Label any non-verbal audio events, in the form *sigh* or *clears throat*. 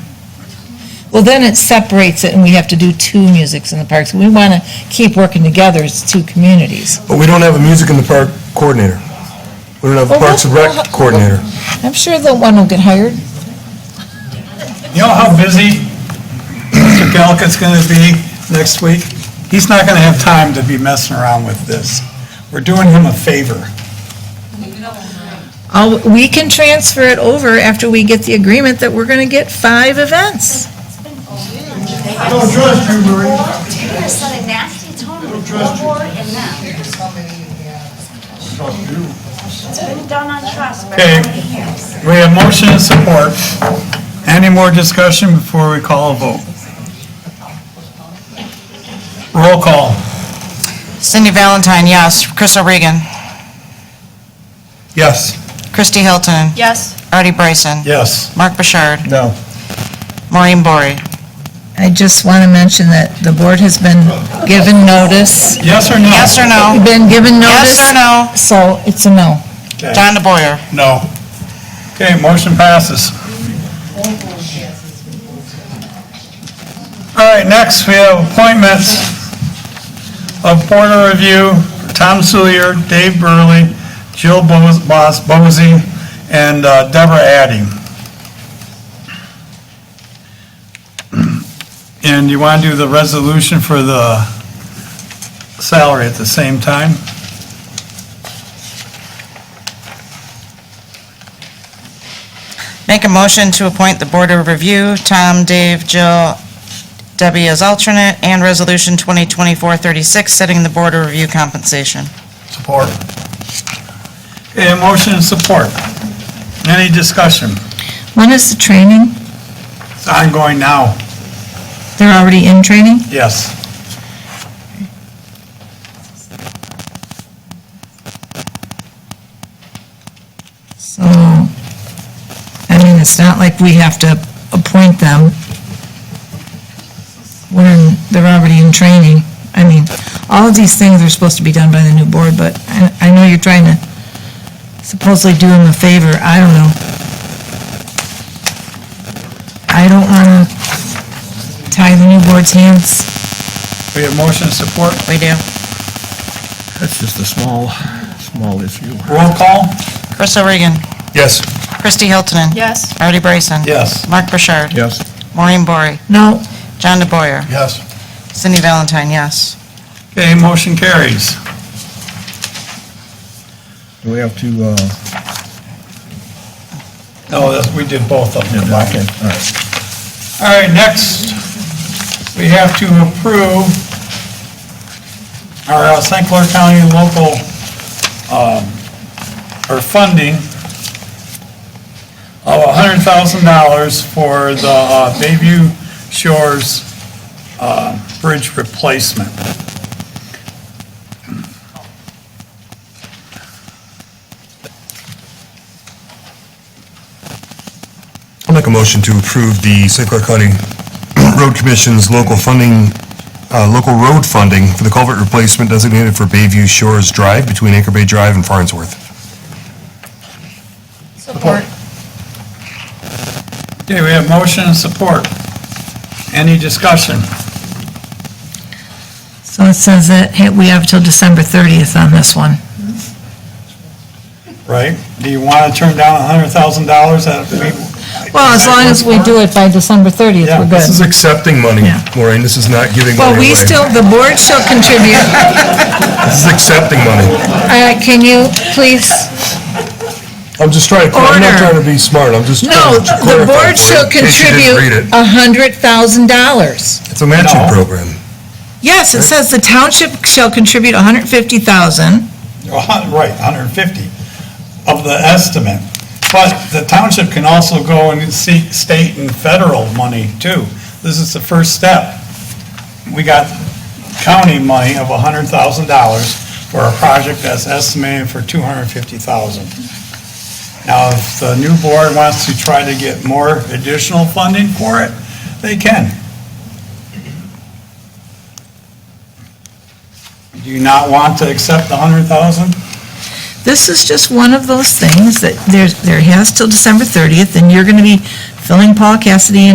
Well, then it separates it, and we have to do two musics in the parks. We want to keep working together as two communities. But we don't have a music in the park coordinator. We don't have a Well, Parks and we'll- Rec we'll- coordinator. I'm sure the one will get hired. You know how busy Mr. Galka's going to be next week? He's not going to have time to be messing around with this. We're doing him a favor. I'll- We can transfer it over after we get the agreement that we're going to get five events. I don't trust you, Marie. You're set a nasty tone with your board and them. It's been done on trust for Okay. how many years? We have motion and support. Any more discussion before we call a vote? Roll call. Cindy Valentine, yes. Crystal Regan. Yes. Christy Hilton. Yes. Artie Bryson. Yes. Mark Bouchard. No. Maureen Bory. I just want to mention that the board has been given notice. Yes or no? Yes or no? Been given notice. Yes or no? So it's a no. Okay. John DeBoyer. No. Okay, motion passes. All right, next, we have appointments of Board of Review, Tom Sulier, Dave Burley, Jill Bo- Bos- Bosey, and uh, Deborah Addy. And you want to do the resolution for the salary at the same time? Make a motion to appoint the Board of Review, Tom, Dave, Jill, Debbie as alternate, and Resolution 2024-36, setting the Board of Review compensation. Support. Okay, a motion and support. Any discussion? When is the training? It's ongoing now, They're already in training? yes. So, I mean, it's not like we have to appoint them when they're already in training. I mean, all of these things are supposed to be done by the new board, but I, I know you're trying to supposedly do them a favor. I don't know. I don't want to tie the new board's hands. We have motion and support. We do. That's just a small, small issue. Roll call? Crystal Regan. Yes. Christy Hiltonen. Yes. Artie Bryson. Yes. Mark Bouchard. Yes. Maureen Bory. No, John DeBoyer. Yes. Cindy Valentine, yes. Okay, motion carries. Do we have to, uh, No, that's- we did both of them. yeah, okay, all right. All right, next, we have to approve our uh, St. Clair County local, um, or funding of $100,000 for the uh, Bayview Shores uh, Bridge replacement. I'll make a motion to approve the St. Clair County *clears throat* Road Commission's local funding, uh, local road funding for the culvert replacement designated for Bayview Shores Drive between Anchor Bay Drive and Farnsworth. Support. Okay, we have motion and support. Any discussion? so it says that hey, we have till December 30th on this one. Right? Do you want to turn down $100,000 that we? Well, as long as we do it by December 30th, Yeah, we're good. This is accepting money, Yeah. Maureen. This is not giving money Well, away. we still, the board shall contribute. *laughs* This is accepting money. Uh, Can you please? I'm just trying, to- Order. I'm not trying to be smart. I'm just No, trying to the clarify board for shall you, in case you didn't read contribute a it. hundred thousand dollars. It's a matching No. program. Yes, it says the township shall contribute a hundred fifty thousand. Well, hun- Right, 150 of the estimate. But the township can also go and seek state and federal money too. This is the first step. We got county money of $100,000 for a project that's estimated for 250,000. Now, if the new board wants to try to get more additional funding for it, they can. Do you not want to accept the 100,000? This is just one of those things that there's, there has till December thirtieth, and you're gonna be filling Paul Cassidy in